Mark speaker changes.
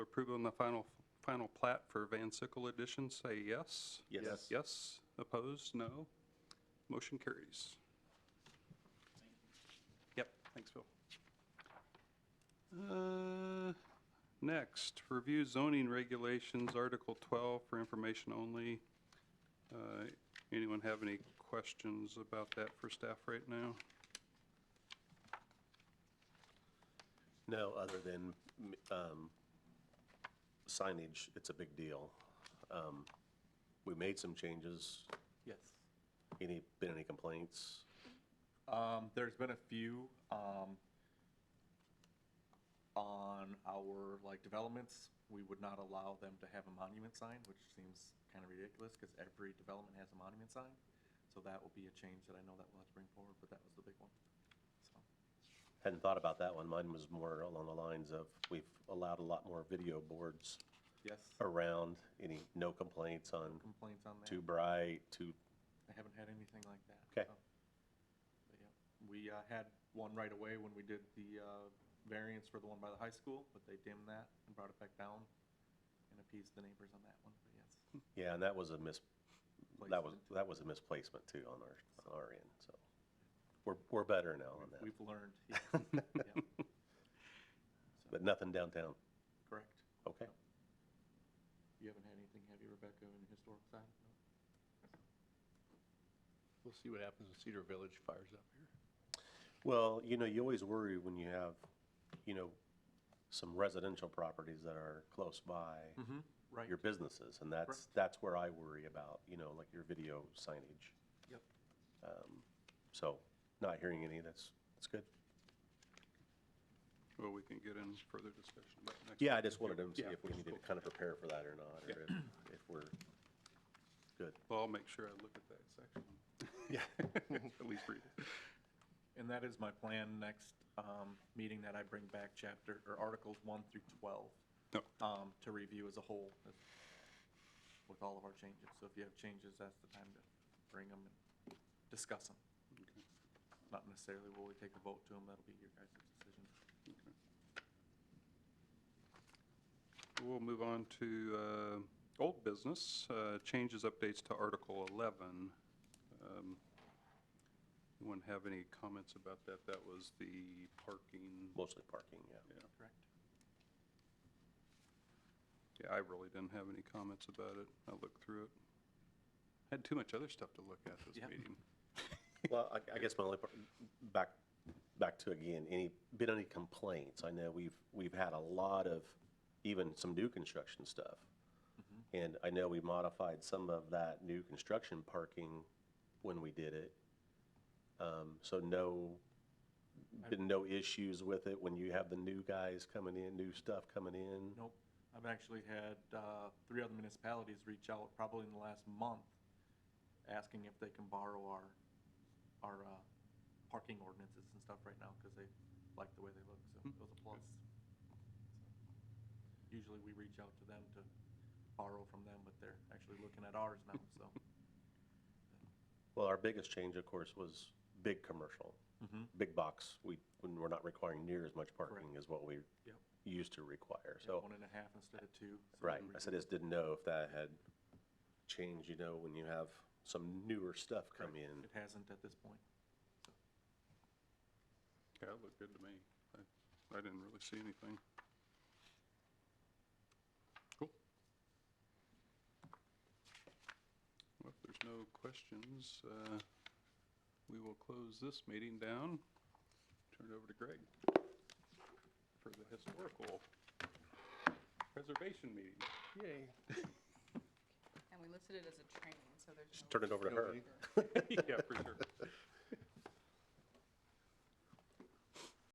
Speaker 1: approving the final, final plat for Van Sickle Edition, say yes.
Speaker 2: Yes. Yes.
Speaker 1: Yes, opposed, no. Motion carries. Yep, thanks, Bill. Uh, Next, review zoning regulations, Article 12 for information only. Uh, Anyone have any questions about that for staff right now?
Speaker 2: No, other than m- um, signage, it's a big deal. Um, We made some changes.
Speaker 3: Yes.
Speaker 2: Any, been any complaints?
Speaker 3: Um, there's been a few, um, on our, like, developments, we would not allow them to have a monument sign, which seems kind of ridiculous, because every development has a monument sign. So that will be a change that I know that we'll have to bring forward, but that was the big one, so.
Speaker 2: Hadn't thought about that one. Mine was more along the lines of, we've allowed a lot more video boards
Speaker 3: Yes,
Speaker 2: around. Any, no complaints on
Speaker 3: complaints on that?
Speaker 2: too bright, too,
Speaker 3: I haven't had anything like that.
Speaker 2: Okay.
Speaker 3: so. But yeah, We uh, had one right away when we did the uh, variance for the one by the high school, but they dimmed that and brought it back down and appeased the neighbors on that one, but yes.
Speaker 2: yeah, and that was a mis, that was,
Speaker 3: placement.
Speaker 2: that was a misplacement too on our, on our end, so. We're, we're better now on that,
Speaker 3: We've learned, yes. Yeah,
Speaker 2: but nothing downtown,
Speaker 3: correct.
Speaker 2: okay?
Speaker 3: You haven't had anything, have you, Rebecca, in the historic side? No?
Speaker 4: We'll see what happens when Cedar Village fires up here.
Speaker 2: Well, you know, you always worry when you have, you know, some residential properties that are close by
Speaker 3: Mm-hmm, Right,
Speaker 2: your businesses, and that's,
Speaker 3: Correct.
Speaker 2: that's where I worry about, you know, like your video signage.
Speaker 3: yep.
Speaker 2: Um, So, not hearing any, that's, that's good.
Speaker 1: Well, we can get in further discussion about next.
Speaker 2: Yeah, I just wanted to see
Speaker 1: Yeah,
Speaker 2: if we needed to kind of prepare for that or not, or if, if we're good.
Speaker 1: Well, I'll make sure I look at that section. Yeah. At least read it.
Speaker 3: And that is my plan next um, meeting that I bring back chapter, or Articles 1 through 12.
Speaker 1: No,
Speaker 3: um, to review as a whole uh, with all of our changes. So if you have changes, that's the time to bring them and discuss them. Not necessarily will we take a vote to them, that'll be your guys' decision.
Speaker 1: We'll move on to uh, old business, uh, changes, updates to Article 11. Um, Anyone have any comments about that? That was the parking.
Speaker 2: Mostly parking, yeah.
Speaker 3: Correct.
Speaker 1: Yeah, I really didn't have any comments about it. I looked through it. Had too much other stuff to look at this
Speaker 3: Yeah.
Speaker 1: meeting.
Speaker 2: Well, I, I guess my only, par- back, back to again, any, been any complaints? I know we've, we've had a lot of, even some new construction stuff.
Speaker 3: Mm-hmm.
Speaker 2: And I know we modified some of that new construction parking when we did it. Um, so no, been no issues with it when you have the new guys coming in, new stuff coming in?
Speaker 3: Nope, I've actually had uh, three other municipalities reach out probably in the last month asking if they can borrow our, our uh, parking ordinances and stuff right now because they like the way they look,
Speaker 2: Hmm.
Speaker 3: so it was a plus. Usually we reach out to them to borrow from them, but they're actually looking at ours now, so.
Speaker 2: Well, our biggest change, of course, was big commercial.
Speaker 3: Mhm.
Speaker 2: Big box, we, when we're not requiring near as much parking as what we
Speaker 3: Yep.
Speaker 2: used to require, so.
Speaker 3: One and a half instead of two. so
Speaker 2: Right,
Speaker 3: we-
Speaker 2: I said, I just didn't know if that had changed, you know, when you have some newer stuff come in.
Speaker 3: It hasn't at this point.
Speaker 1: Yeah, it looked good to me. I, I didn't really see anything. Cool. Well, if there's no questions, uh, we will close this meeting down. Turn it over to Greg for the historical preservation meeting.
Speaker 4: Yay.
Speaker 5: And we listed it as a training, so there's no.
Speaker 2: Just turn it over to her.
Speaker 1: Yeah, for sure.